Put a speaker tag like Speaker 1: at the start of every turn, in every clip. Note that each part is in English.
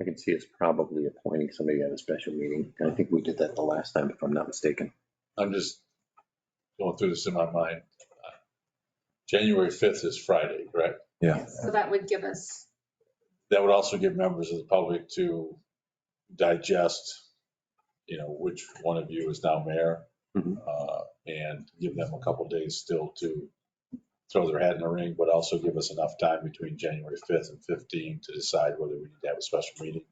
Speaker 1: I can see us probably appointing somebody at a special meeting. And I think we did that the last time, if I'm not mistaken.
Speaker 2: I'm just going through this in my mind. January 5th is Friday, correct?
Speaker 3: Yeah.
Speaker 4: So that would give us,
Speaker 2: That would also give members of the public to digest, you know, which one of you is now mayor.
Speaker 1: Mhm.
Speaker 2: uh, And give them a couple days still to throw their hat in the ring, but also give us enough time between January 5th and 15 to decide whether we need to have a special meeting.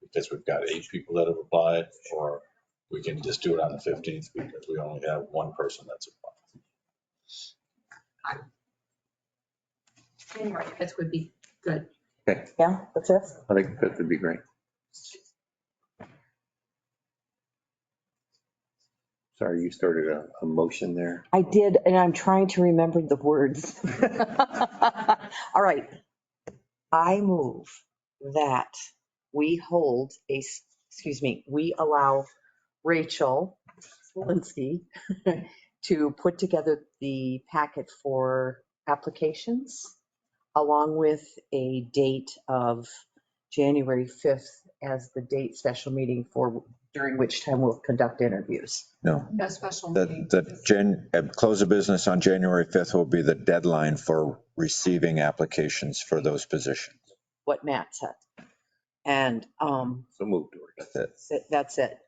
Speaker 2: Because we've got eight people that have applied, or we can just do it on the 15th because we only have one person that's applied.
Speaker 4: January 5th would be good.
Speaker 5: Yeah, the fifth.
Speaker 1: I think that would be great. Sorry, you started a, a motion there.
Speaker 5: I did, and I'm trying to remember the words. All right. I move that we hold a, s- excuse me, we allow Rachel Walensky to put together the packet for applications along with a date of January 5th as the date special meeting for, during which time we'll conduct interviews.
Speaker 3: No,
Speaker 4: No special meeting.
Speaker 3: that, that Jan, uh, close of business on January 5th will be the deadline for receiving applications for those positions.
Speaker 5: what Matt said. And um,
Speaker 1: So moved, George.
Speaker 5: s- that's it.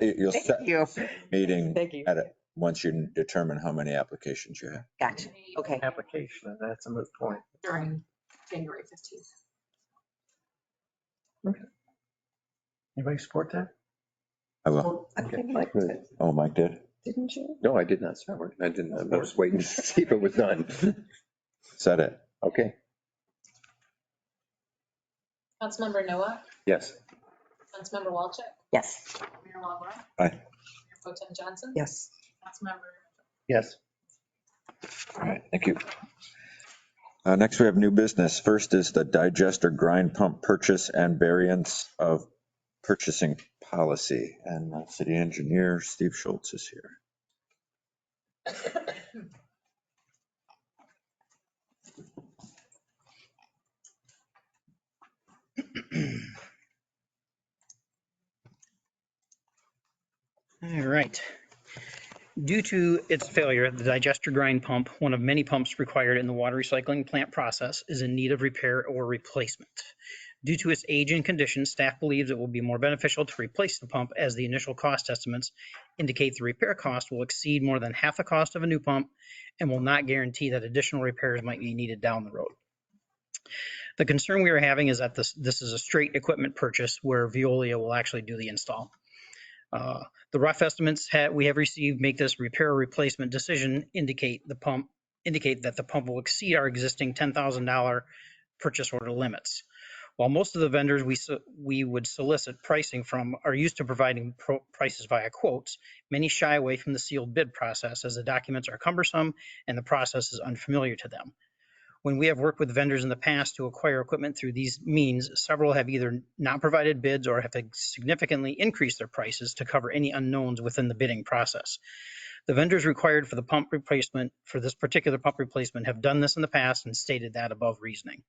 Speaker 3: You- You'll set
Speaker 5: Thank you.
Speaker 3: meeting
Speaker 5: Thank you.
Speaker 3: at it, once you determine how many applications you have.
Speaker 5: Gotcha. Okay.
Speaker 6: application, and that's a moot point.
Speaker 4: During January 15th.
Speaker 6: Anybody support that?
Speaker 3: I will. Oh, Mike did?
Speaker 1: No, I did not support. I didn't. I was waiting to see if it was done.
Speaker 3: Said it.
Speaker 1: Okay,
Speaker 7: Councilmember Noah,
Speaker 1: yes.
Speaker 7: Councilmember Walchuk,
Speaker 5: Yes.
Speaker 7: Mayor Walagora.
Speaker 3: Aye.
Speaker 7: Mayor Pro Tem Johnson.
Speaker 5: Yes.
Speaker 7: Councilmember
Speaker 6: Yes.
Speaker 3: All right, thank you. Uh, Next, we have new business. First is the digester grind pump purchase and variance of purchasing policy. And uh, city engineer Steve Schultz is here.
Speaker 8: All right. Due to its failure, the digester grind pump, one of many pumps required in the water recycling plant process, is in need of repair or replacement. Due to its age and condition, staff believes it will be more beneficial to replace the pump as the initial cost estimates indicate the repair cost will exceed more than half the cost of a new pump and will not guarantee that additional repairs might be needed down the road. The concern we are having is that this, this is a straight equipment purchase where Veolia will actually do the install. Uh, the rough estimates ha- we have received make this repair or replacement decision indicate the pump, indicate that the pump will exceed our existing $10,000 purchase order limits. While most of the vendors we, so- we would solicit pricing from are used to providing pro- prices via quotes, many shy away from the sealed bid process as the documents are cumbersome and the process is unfamiliar to them. When we have worked with vendors in the past to acquire equipment through these means, several have either not provided bids or have significantly increased their prices to cover any unknowns within the bidding process. The vendors required for the pump replacement, for this particular pump replacement, have done this in the past and stated that above reasoning.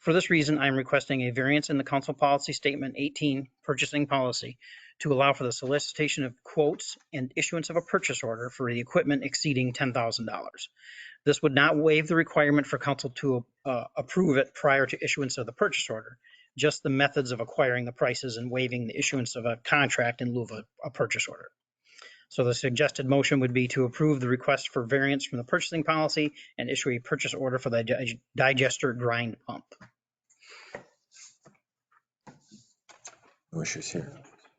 Speaker 8: For this reason, I am requesting a variance in the council policy statement 18, purchasing policy, to allow for the solicitation of quotes and issuance of a purchase order for the equipment exceeding $10,000. This would not waive the requirement for council to uh, approve it prior to issuance of the purchase order, just the methods of acquiring the prices and waiving the issuance of a contract in lieu of a- a purchase order. So the suggested motion would be to approve the request for variance from the purchasing policy and issue a purchase order for the dig- digester grind pump.
Speaker 3: No issues here.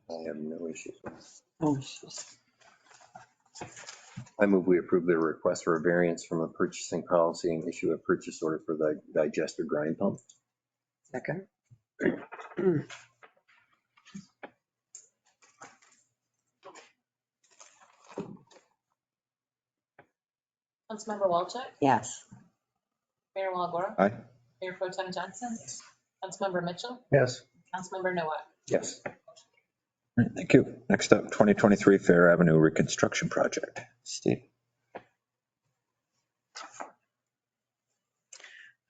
Speaker 1: I have no issues.
Speaker 5: Oh, she's-
Speaker 1: I move we approve the request for a variance from a purchasing policy and issue a purchase order for the digester grind pump.
Speaker 5: Second.
Speaker 7: Councilmember Walchuk,
Speaker 5: Yes.
Speaker 7: Mayor Walagora.
Speaker 3: Aye.
Speaker 7: Mayor Pro Tem Johnson. Councilmember Mitchell,
Speaker 6: Yes.
Speaker 7: Councilmember Noah.
Speaker 1: Yes.
Speaker 3: All right, Thank you. Next up, 2023 Fair Avenue Reconstruction Project. Steve.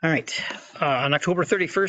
Speaker 8: All right, uh, on October 31st,